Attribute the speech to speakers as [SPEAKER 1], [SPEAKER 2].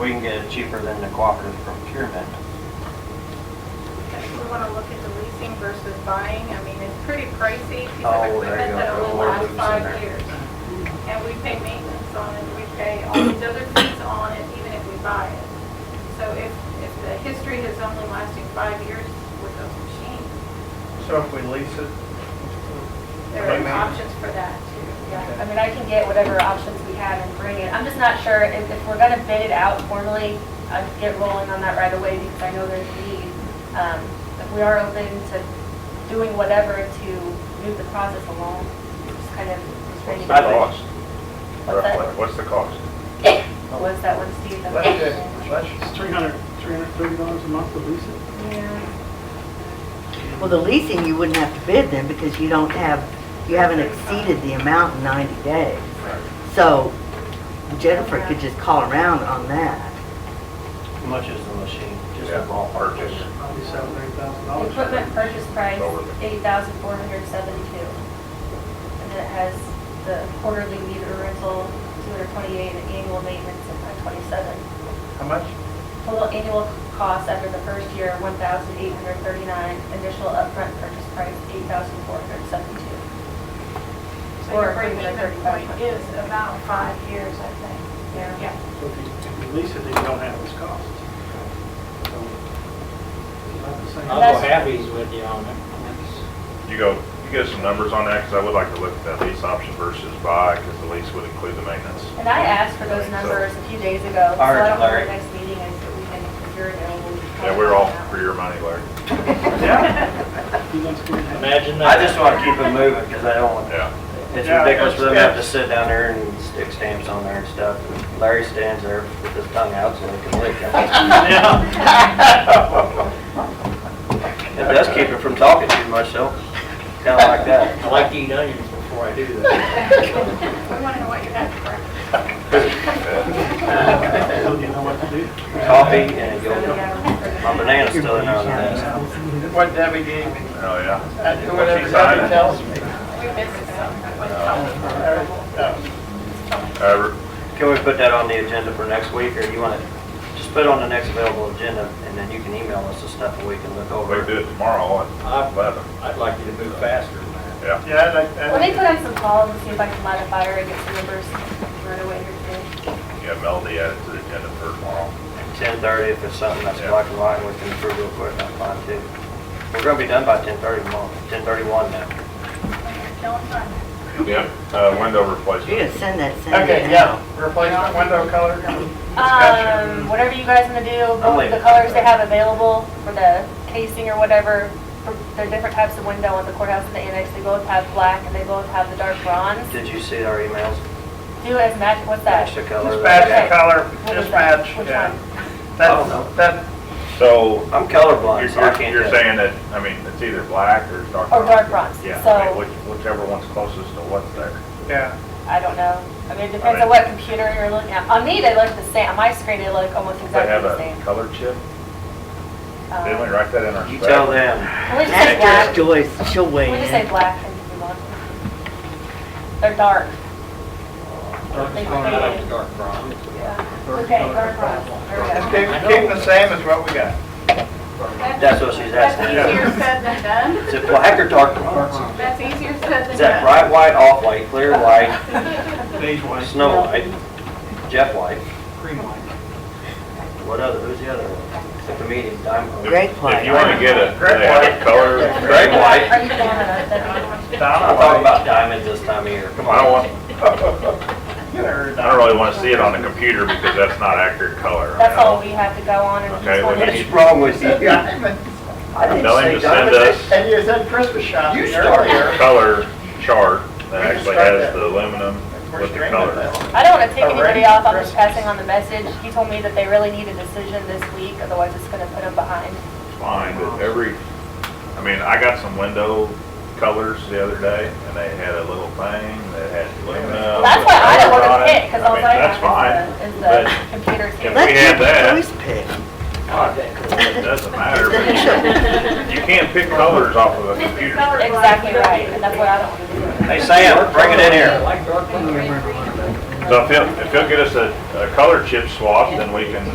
[SPEAKER 1] We can get it cheaper than the cooperative procurement.
[SPEAKER 2] If we want to look at the leasing versus buying, I mean, it's pretty pricey piece
[SPEAKER 1] Oh,
[SPEAKER 2] of
[SPEAKER 1] there you
[SPEAKER 2] equipment
[SPEAKER 1] go.
[SPEAKER 2] that
[SPEAKER 1] Throw
[SPEAKER 2] only
[SPEAKER 1] more
[SPEAKER 2] lasts
[SPEAKER 1] loops in there.
[SPEAKER 2] five years. And we pay maintenance on it, we pay all these other fees on it, even if we buy it. So if, if the history is only lasting five years with those machines,
[SPEAKER 3] So if we lease it,
[SPEAKER 2] there
[SPEAKER 3] Right,
[SPEAKER 2] are
[SPEAKER 3] ma'am.
[SPEAKER 2] options for that too, yeah.
[SPEAKER 4] I mean, I can get whatever options we have and bring it. I'm just not sure if, if we're gonna bid it out formally, I'd get rolling on that right away because I know there's a need. Um, if we are open to doing whatever to move the process along, just kind of.
[SPEAKER 5] What's the cost?
[SPEAKER 4] What's that?
[SPEAKER 5] Roughly, What's the cost?
[SPEAKER 4] What was that one, Steve? that-
[SPEAKER 3] let's just, let's,
[SPEAKER 6] It's 300, $330 a month to lease it?
[SPEAKER 4] Yeah,
[SPEAKER 7] Well, the leasing, you wouldn't have to bid then because you don't have, you haven't exceeded the amount in 90 days. So Jennifer could just call around on that.
[SPEAKER 1] How much is the machine? Just
[SPEAKER 5] Yeah,
[SPEAKER 1] a ballpark.
[SPEAKER 5] Purchase,
[SPEAKER 6] Probably seven, eight thousand
[SPEAKER 5] Oh,
[SPEAKER 4] The
[SPEAKER 6] dollars.
[SPEAKER 4] Equipment purchase price,
[SPEAKER 5] Lower.
[SPEAKER 4] eight thousand four hundred seventy-two. And then it has the quarterly meter rental, two hundred twenty-eight, and annual maintenance of five twenty-seven.
[SPEAKER 3] how much?
[SPEAKER 4] Total annual cost after the first year, one thousand eight hundred thirty-nine, initial upfront purchase price, eight thousand four hundred seventy-two.
[SPEAKER 2] So
[SPEAKER 4] Or
[SPEAKER 2] your break even point
[SPEAKER 4] 35.
[SPEAKER 2] is about five years, I think,
[SPEAKER 4] Yeah.
[SPEAKER 2] yeah.
[SPEAKER 6] So if you- if you lease it, then you don't have those costs. So, about the same.
[SPEAKER 1] I'll go halfies with you on it. That's-
[SPEAKER 5] you go, you get some numbers on that, because I would like to look at that lease option versus buy, because the lease would include the maintenance.
[SPEAKER 4] And I asked for those
[SPEAKER 5] So-
[SPEAKER 4] numbers a few days ago, so
[SPEAKER 1] All right,
[SPEAKER 4] I don't know
[SPEAKER 1] Larry.
[SPEAKER 4] the next meeting is, but we can, if you're available. we can
[SPEAKER 5] Yeah, we're all
[SPEAKER 4] talk about
[SPEAKER 5] for your money, Larry.
[SPEAKER 6] Yeah. You want to go ahead?
[SPEAKER 8] Imagine
[SPEAKER 1] I
[SPEAKER 8] that.
[SPEAKER 1] just want to keep it moving because I don't want,
[SPEAKER 5] Yeah.
[SPEAKER 1] it's
[SPEAKER 3] Yeah,
[SPEAKER 1] ridiculous for them to
[SPEAKER 3] that's-
[SPEAKER 1] have to sit down there and stick stamps on there and stuff. And Larry stands there with his tongue out so he can lick it. It does keep it from talking too much though, kind of like that.
[SPEAKER 8] I like to eat onions before I do that.
[SPEAKER 2] We want to know what you have for breakfast.
[SPEAKER 6] So you know what to do?
[SPEAKER 1] Coffee and it
[SPEAKER 4] that. So,
[SPEAKER 1] goes,
[SPEAKER 4] yeah.
[SPEAKER 1] my banana's still in on that.
[SPEAKER 3] What Debbie gave me,
[SPEAKER 5] Oh, yeah.
[SPEAKER 3] I do
[SPEAKER 5] What
[SPEAKER 3] whatever
[SPEAKER 5] she
[SPEAKER 3] Debbie
[SPEAKER 5] signed.
[SPEAKER 3] tells me.
[SPEAKER 2] We missed it, so I wouldn't tell them.
[SPEAKER 3] Every- no.
[SPEAKER 5] Uh,
[SPEAKER 1] Can we put that on the agenda for next week or you want to, just put it on the next available agenda and then you can email us the stuff and we can look
[SPEAKER 5] We can
[SPEAKER 1] over.
[SPEAKER 5] do it tomorrow at
[SPEAKER 8] I'd
[SPEAKER 5] eleven,
[SPEAKER 8] I'd like you to move faster than that.
[SPEAKER 5] yeah.
[SPEAKER 3] Yeah, I
[SPEAKER 5] Uh,
[SPEAKER 3] like,
[SPEAKER 4] Let me
[SPEAKER 3] that.
[SPEAKER 4] put on some calls and see if I can light a fire and get some numbers right away here today.
[SPEAKER 5] Yeah, Melody added to the agenda for tomorrow.
[SPEAKER 1] 10:30 if it's something that's black and white, we can approve real quick, that's fine too. We're going to be done by 10:30 tomorrow, 10:31 now.
[SPEAKER 2] Killing time.
[SPEAKER 5] Yeah. Uh, window
[SPEAKER 7] You're
[SPEAKER 5] replacement.
[SPEAKER 7] gonna send that, send it
[SPEAKER 3] okay,
[SPEAKER 7] now.
[SPEAKER 3] yeah, replacement window color.
[SPEAKER 4] Um, whatever you guys want to do,
[SPEAKER 1] I'm
[SPEAKER 4] both
[SPEAKER 1] leaving.
[SPEAKER 4] the colors they have available for the casing or whatever, for the different types of window on the courthouse and the annex, they both have black and they both have the dark bronze.
[SPEAKER 1] Did you see our emails?
[SPEAKER 4] Do as match, what's that?
[SPEAKER 1] Match the color.
[SPEAKER 3] Just
[SPEAKER 1] of
[SPEAKER 3] match the
[SPEAKER 1] that.
[SPEAKER 3] color,
[SPEAKER 4] What was
[SPEAKER 3] just
[SPEAKER 4] that?
[SPEAKER 3] match,
[SPEAKER 4] Which
[SPEAKER 3] yeah.
[SPEAKER 4] one?
[SPEAKER 1] Oh, no.
[SPEAKER 3] That's, that,
[SPEAKER 5] So
[SPEAKER 1] I'm
[SPEAKER 5] you're,
[SPEAKER 1] colorblind, so I
[SPEAKER 5] you're-
[SPEAKER 1] can't
[SPEAKER 5] you're
[SPEAKER 1] tell.
[SPEAKER 5] saying that, I mean, it's either black or dark.
[SPEAKER 4] Or
[SPEAKER 5] brown.
[SPEAKER 4] dark bronze,
[SPEAKER 5] Yeah, I mean,
[SPEAKER 4] so
[SPEAKER 5] which- whichever one's closest to what's there.
[SPEAKER 3] yeah,
[SPEAKER 4] I don't know. I mean, it depends on what computer you're looking at. On me, they look the same, on my screen, they look almost
[SPEAKER 5] They have
[SPEAKER 4] exactly the
[SPEAKER 5] a
[SPEAKER 4] same.
[SPEAKER 5] color chip,
[SPEAKER 4] Um,
[SPEAKER 5] didn't we write that in our
[SPEAKER 1] You
[SPEAKER 5] spec?
[SPEAKER 1] tell them.
[SPEAKER 4] Can we just say black?
[SPEAKER 7] Ask Joyce, she'll weigh
[SPEAKER 4] Can we just say
[SPEAKER 7] in.
[SPEAKER 4] black and move on? They're dark. They
[SPEAKER 8] I like
[SPEAKER 4] faded.
[SPEAKER 8] the dark brown.
[SPEAKER 4] Okay, dark bronze, there we go.
[SPEAKER 3] just keep, keep the same as what we got.
[SPEAKER 1] That's what she's
[SPEAKER 2] That's
[SPEAKER 1] asking.
[SPEAKER 2] easier said than done.
[SPEAKER 1] Is it black or dark bronze?
[SPEAKER 2] That's easier said than done.
[SPEAKER 1] Is that bright white, off white, clear white,
[SPEAKER 3] These ones.
[SPEAKER 1] snow white, jet white?
[SPEAKER 3] Cream white.
[SPEAKER 1] What other, who's the other one? Except the medium, diamond.
[SPEAKER 7] Great
[SPEAKER 5] If- If
[SPEAKER 7] white.
[SPEAKER 5] you wanna get a,
[SPEAKER 3] Great
[SPEAKER 5] they have
[SPEAKER 3] white.
[SPEAKER 5] a color.
[SPEAKER 1] Great white.
[SPEAKER 4] Are you doing that? That'd be-
[SPEAKER 1] I'm talking about diamonds this time of year, come
[SPEAKER 5] I don't
[SPEAKER 1] on.
[SPEAKER 5] want, I don't really wanna see it on the computer because that's not accurate color. I
[SPEAKER 4] That's
[SPEAKER 5] mean, I
[SPEAKER 4] all
[SPEAKER 5] don't-
[SPEAKER 4] we have to go on and
[SPEAKER 5] Okay,
[SPEAKER 4] just
[SPEAKER 5] well,
[SPEAKER 4] one
[SPEAKER 5] you
[SPEAKER 4] day.
[SPEAKER 5] need-
[SPEAKER 1] What's wrong with you? I didn't
[SPEAKER 5] Tell him
[SPEAKER 1] say
[SPEAKER 5] to send
[SPEAKER 1] diamonds.
[SPEAKER 5] us
[SPEAKER 3] And you said Christmas shopping
[SPEAKER 1] You start.
[SPEAKER 3] earlier.
[SPEAKER 5] color chart that
[SPEAKER 3] We can
[SPEAKER 5] actually
[SPEAKER 3] start
[SPEAKER 5] has
[SPEAKER 3] that.
[SPEAKER 5] the aluminum
[SPEAKER 3] We're
[SPEAKER 5] with the
[SPEAKER 3] straight with
[SPEAKER 5] color.
[SPEAKER 3] that.
[SPEAKER 4] I don't want to take anybody
[SPEAKER 3] Already
[SPEAKER 4] off, I'm
[SPEAKER 3] Christmas.
[SPEAKER 4] just passing on the message. He told me that they really need a decision this week, otherwise it's going to put them behind.
[SPEAKER 5] Fine, but every, I mean, I got some window colors the other day and they had a little thing that had aluminum.
[SPEAKER 4] Well, that's why I don't want to pick, because all
[SPEAKER 5] all
[SPEAKER 4] I "Oh, have is the- is the computer's
[SPEAKER 5] can
[SPEAKER 4] here.
[SPEAKER 5] we have that.
[SPEAKER 7] Let Joyce pick.
[SPEAKER 8] God, that cool.
[SPEAKER 5] It doesn't matter, but you can't pick colors off of a computer.
[SPEAKER 4] Exactly right, and that's what I don't want to do.
[SPEAKER 1] Hey Sam, bring it in
[SPEAKER 8] I
[SPEAKER 1] here.
[SPEAKER 8] like dark brown.
[SPEAKER 5] So if he'll, if he'll get us a, a color chip swap, then we can